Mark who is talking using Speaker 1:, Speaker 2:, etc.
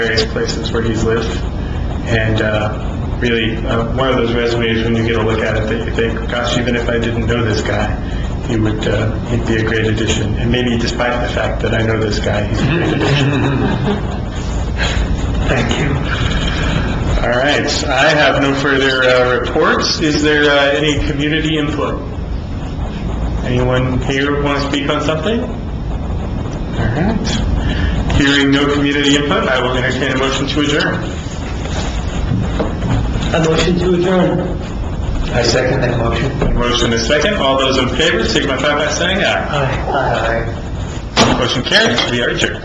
Speaker 1: various places where he's lived. And uh, really, uh, one of those resumes, when you get a look at it, that you think, gosh, even if I didn't know this guy, he would, uh, he'd be a great addition. And maybe despite the fact that I know this guy, he's a great addition. Thank you. All right, I have no further uh, reports. Is there uh, any community input? Anyone here want to speak on something? All right. Hearing no community input, I will entertain a motion to adjourn.
Speaker 2: A motion to adjourn. I second that motion.
Speaker 1: Motion is second. All those in favor signify by saying aye.
Speaker 2: Aye. Aye.
Speaker 1: Motion carries. We are adjourned.